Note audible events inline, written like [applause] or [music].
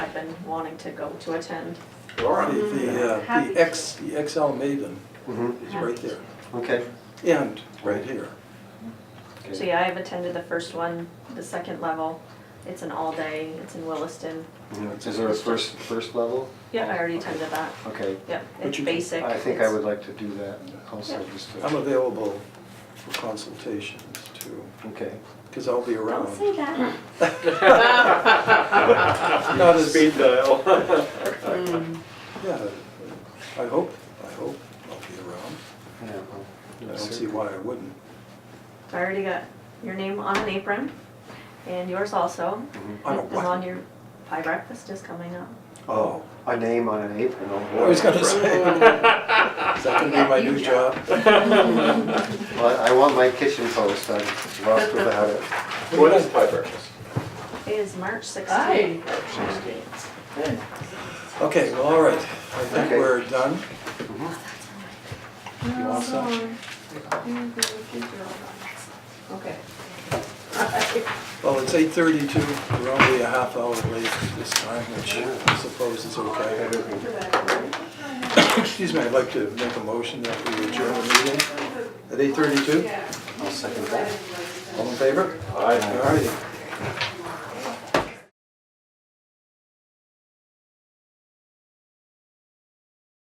been wanting to go to attend. All The, right. the, uh, Mm-hmm. Happy the to. X, the XL Maven Mm-hmm. Mhm. is right there, Okay. and right here. Okay. So yeah, I have attended the first one, the second level. It's an all-day, it's in Williston. Mm-hmm. Yeah, Is there a first, first level? Yeah, I already attended that. Okay. Yep, Would it's you- basic. I think I it's- would like to do that also, Yeah. just I'm to, available for consultations too, okay. because I'll be around. Don't say [laughs] that. Not as, yeah, Speed [laughs] dial. Hmm. I hope, I hope I'll be around. Yeah, well, I don't see why I wouldn't. I already got your name on an apron and yours also. Mhm. On a As long what? your pie breakfast is coming up. Oh, a name on an apron, oh boy. I was gonna say, [laughs] is that gonna be my new job? Well, I want my kitchen post, I'm lost without it. What is pie breakfast? It is March Aye. 16th. Okay, well, all right, I think Okay. we're done. You want some? Okay. Well, it's eight thirty-two, we're only a half hour late this time, which I suppose is okay. Excuse me, I'd like to make a motion that we adjourn the meeting at eight thirty-two. I'll second that. All in favor? Aye. All righty.